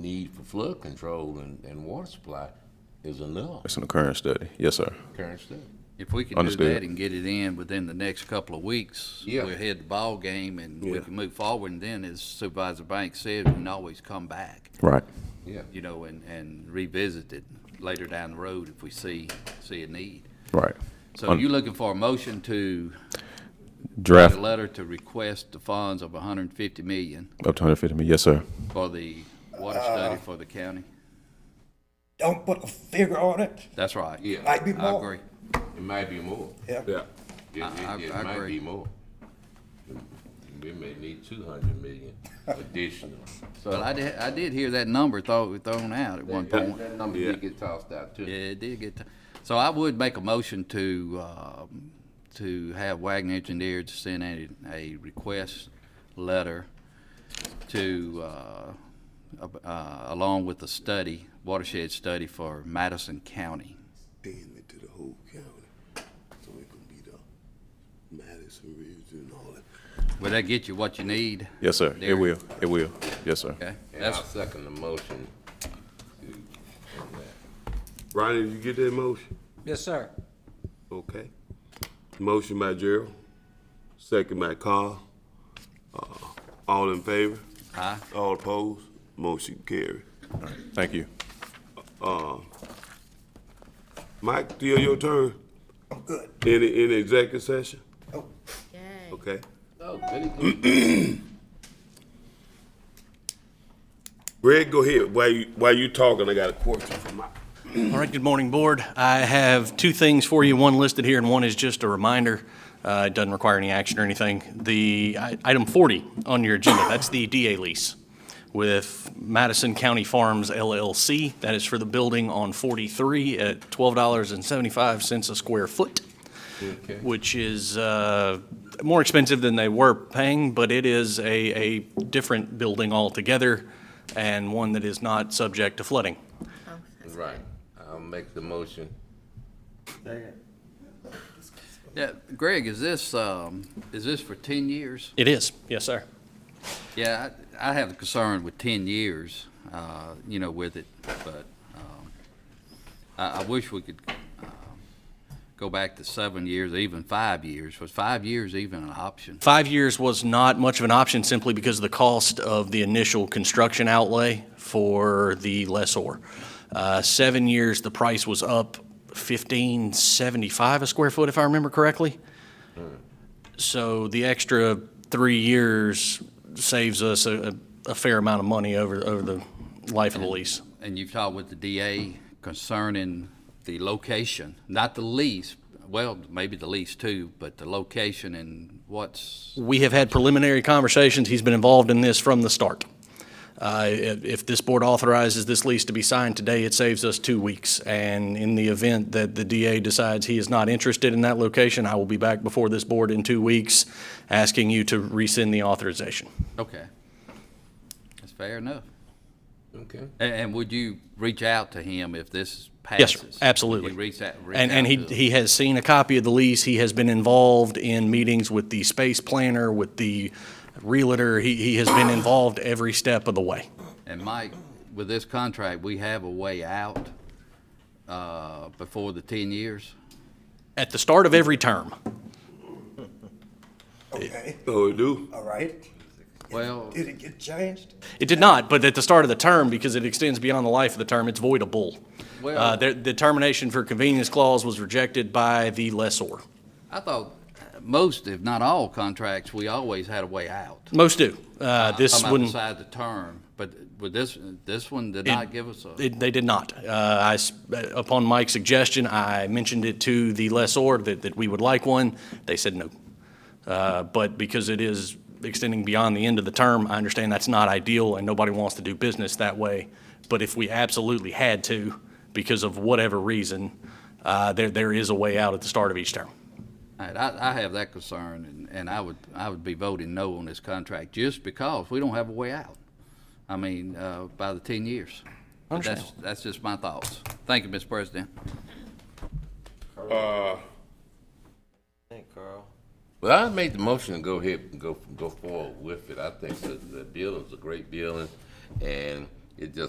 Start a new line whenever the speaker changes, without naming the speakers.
need for flood control and, and water supply is enough,
It's in the current study. Yes, sir.
current stuff.
If we can do
Understood.
that and get it in within the next couple of weeks,
Yeah.
we'll head the ball game and we
Yeah.
can move forward. And then, as Supervisor Banks said, we can always come back,
Right.
Yeah.
you know, and, and revisit it later down the road if we see, see a need.
Right.
So
Un-
you're looking for a motion to, a
Draft up
letter to request the funds of hundred and fifty million
to 150 million. Yes, sir.
for the
Uh,
water study for the county?
Don't put a figure on it.
That's right.
Yeah.
Might be
I
more.
agree.
It might be more.
Yeah.
It,
I-
it, it
I
might
agree.
be more. We may need two hundred million additional.
But I did, I did hear that number thrown, thrown out at one point.
That number did get tossed out
Yeah,
too.
it did get, t- so I would make a motion to, um, to have Wagner Engineers send a, a request letter to, uh, ab- uh, along with the study, watershed study for Madison County.
extend it to the whole county. So it can be the Madison region and all that.
Will that get you what you need?
Yes, sir. It
There.
will. It will. Yes, sir.
Okay,
And I'll
that's,
second the motion to, on that.
Ronnie, did you get that motion?
Yes, sir.
Okay. Motion by Gerald, second by Carl. Uh, All in favor?
Aye.
All opposed? Motion carried.
Thank you.
Mike, still your turn.
I'm good.
Any, any executive session?
Oh,
Okay.
Oh, very good.
Greg, go ahead. While you, while you talking, I got a question for Mike.
All right, good morning, Board. I have two things for you. One listed here, and one is just a reminder. Uh, It doesn't require any action or anything. The i- item 40 on your agenda, that's the DA lease with Madison County Farms LLC. That is for the building on 43 at $12.75 a square foot, which is uh, more expensive than they were paying, but it is a a different building altogether and one that is not subject to flooding.
Right. I'll make the motion.
yeah, Greg, is this, um, is this for ten years?
It is, yes, sir.
Yeah, I, I have a concern with ten years, uh, you know, with it, but, um, I, I wish we could, um, go back to seven years, even five years. Was five years even an option?
Five years was not much of an option simply because of the cost of the initial construction outlay for the lessor. Uh, Seven years, the price was up fifteen seventy-five a square foot, if I remember correctly. So the extra three years saves us a, a fair amount of money over, over the life of the lease.
And you've talked with the DA concerning the location, not the lease, well, maybe the lease too, but the location and what's,
We have had preliminary conversations. He's been involved in this from the start. Uh, If if this board authorizes this lease to be signed today, it saves us two weeks. And in the event that the DA decides he is not interested in that location, I will be back before this board in two weeks asking you to rescind the authorization.
okay. That's fair enough.
Okay.
And, and would you reach out to him if this
Yes,
passes?
sir, absolutely.
Would you reach out, reach
And, and
out
he,
to him?
he has seen a copy of the lease. He has been involved in meetings with the space planner, with the realtor. He, he has been involved every step of the way.
And Mike, with this contract, we have a way out uh, before the 10 years?
At the start of every term.
okay,
Oh, we do?
all right.
Well,
Did it get changed?
It did not, but at the start of the term, because it extends beyond the life of the term, it's voidable. Uh,
well,
The the termination for convenience clause was rejected by the lessor.
I thought most, if not all contracts, we always had a way out.
Most do.
Ah,
Uh, This
Come out
wouldn't,
beside the term, but with this, this one did not give us a,
it- they did not. Uh, I s- Upon Mike's suggestion, I mentioned it to the lessor that that we would like one. They said no. Uh, But because it is extending beyond the end of the term, I understand that's not ideal, and nobody wants to do business that way. But if we absolutely had to, because of whatever reason, uh, there there is a way out at the start of each term.
I, I I have that concern, and, and I would, I would be voting no on this contract just because we don't have a way out. I mean, uh, by the 10 years. But That's, that's just my thoughts. Thank you, Mr. President.
Well, I made the motion to go ahead and go, go forward with it. I think that the bill is a great bill and, and it just